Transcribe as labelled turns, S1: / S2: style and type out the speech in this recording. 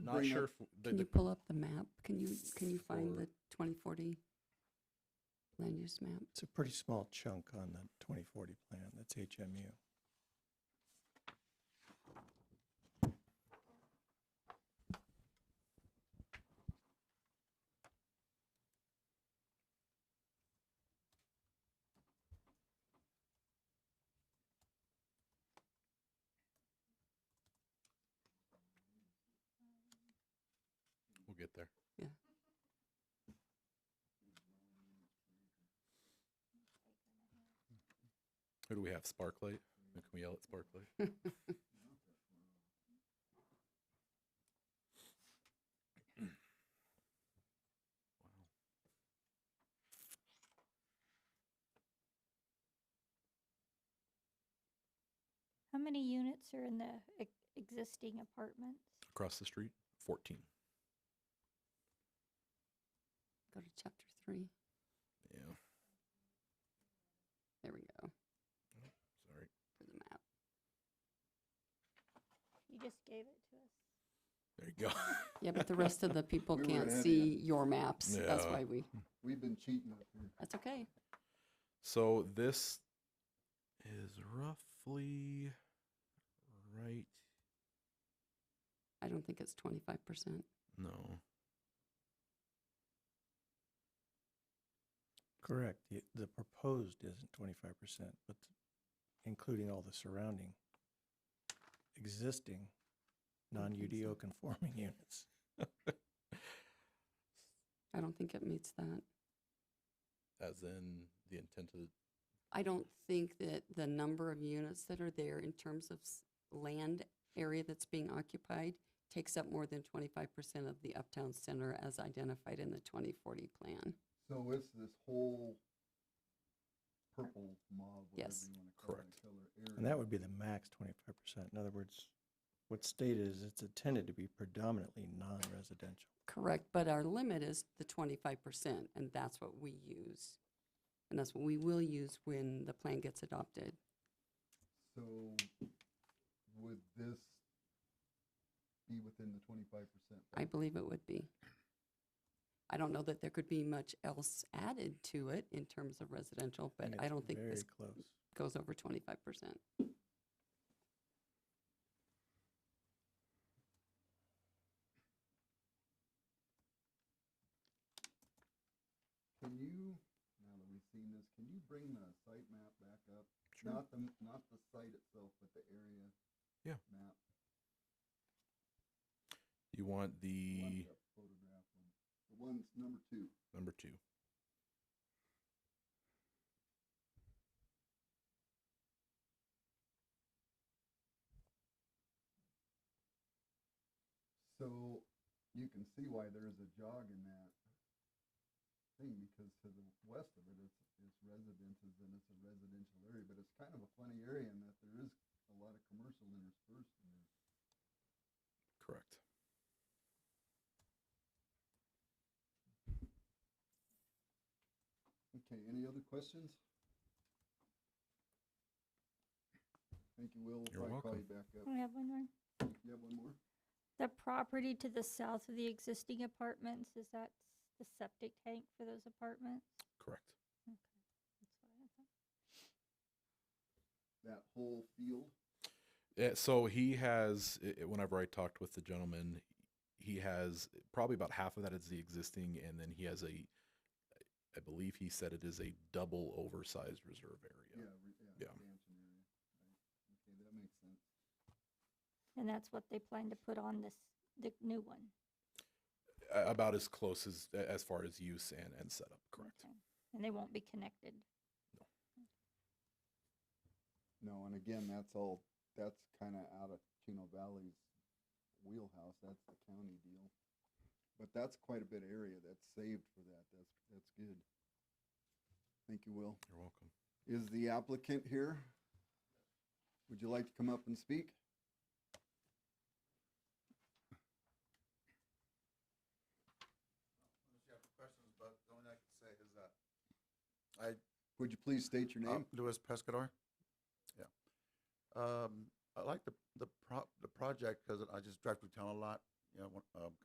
S1: Not
S2: bring
S1: sure
S2: up-
S1: if the,
S3: Can you
S1: the,
S3: pull up the map? Can you, can you find
S1: For-
S3: the 2040 land use map?
S2: It's a pretty small chunk on the 2040 plan. That's HMU.
S1: we'll get there. Who do we have? Sparklight? Can we yell at Sparklight?
S4: How many units are in the ex- existing apartments?
S1: Across the street? 14.
S3: Go to chapter three.
S1: Yeah,
S3: There we go
S1: sorry.
S3: for the map.
S4: You just gave it to us.
S1: There you go.
S3: Yeah, but the rest of the people
S5: We were
S3: can't
S5: ahead of
S3: see your maps. That's
S1: Yeah.
S3: why we,
S5: We've been cheating up here.
S3: that's okay.
S1: So this is roughly right.
S3: I don't think it's 25%.
S1: No.
S2: Correct. The, the proposed isn't 25%, but including all the surrounding existing
S3: don't think so.
S2: non-UDO conforming units.
S3: I don't think it meets that.
S1: As in the intent of,
S3: I don't think that the number of units that are there in terms of s- land area that's being occupied takes up more than 25% of the uptown center as identified in the 2040 plan.
S5: So it's this whole purple mob, whatever
S3: Yes.
S5: you want to call it,
S1: Correct.
S5: color area.
S2: And that would be the max 25%. In other words, what's stated is it's intended to be predominantly non-residential.
S3: Correct, but our limit is the 25%, and that's what we use. And that's what we will use when the plan gets adopted.
S5: So would this be within the twenty-five percent?
S3: I believe it would be. I don't know that there could be much else added to it in terms of residential, but
S2: and
S3: I
S2: it's
S3: don't think
S2: very
S3: this
S2: close.
S3: goes over 25%.
S5: Can you, now that we've seen this, can you bring the site map back up?
S1: Sure.
S5: Not the, not the site itself, but the area.
S1: Yeah.
S5: Map.
S1: you want
S5: The one
S1: the
S5: that Photograph one. The one's number two.
S1: number two.
S5: So you can see why there is a jog in that thing because to the west of it, it's, it's residences and it's a residential area, but it's kind of a funny area in that there is a lot of commercial interspersed in there.
S1: Correct.
S5: Okay, any other questions? Thank you, Will. We'll
S1: You're
S5: probably call
S1: welcome.
S5: you back up.
S4: I have one more.
S5: You have one more?
S4: The property to the south of the existing apartments, is that s- the septic tank for those apartments?
S1: Correct.
S4: Okay, that's what I thought.
S5: That whole field?
S1: Yeah, Eh, so he has, i- i- whenever I talked with the gentleman, he has eh, probably about half of that is the existing, and then he has a, eh, I believe he said it is a double oversized reserve area.
S5: Yeah, re- yeah,
S1: Yeah.
S5: expansion area. Right. Okay, that makes sense.
S4: And that's what they plan to put on this, the new one?
S1: A- About as close as, as far as use and, and setup, correct?
S4: Okay. And they won't be connected?
S5: No, and again, that's all, that's kind of out of Chino Valley's wheelhouse. That's the county deal. But that's quite a bit of area that's saved for that. That's, that's good. Thank you, Will.
S1: You're welcome.
S5: Is the applicant here? Would you like to come up and speak?
S6: Unless you have questions, but the only thing I can say is that
S5: Would you please state your
S6: uh,
S5: name?
S6: Louis Pescador. Yeah. Um, I like the, the prop, the project because I just drive through town a lot yeah, one- uh,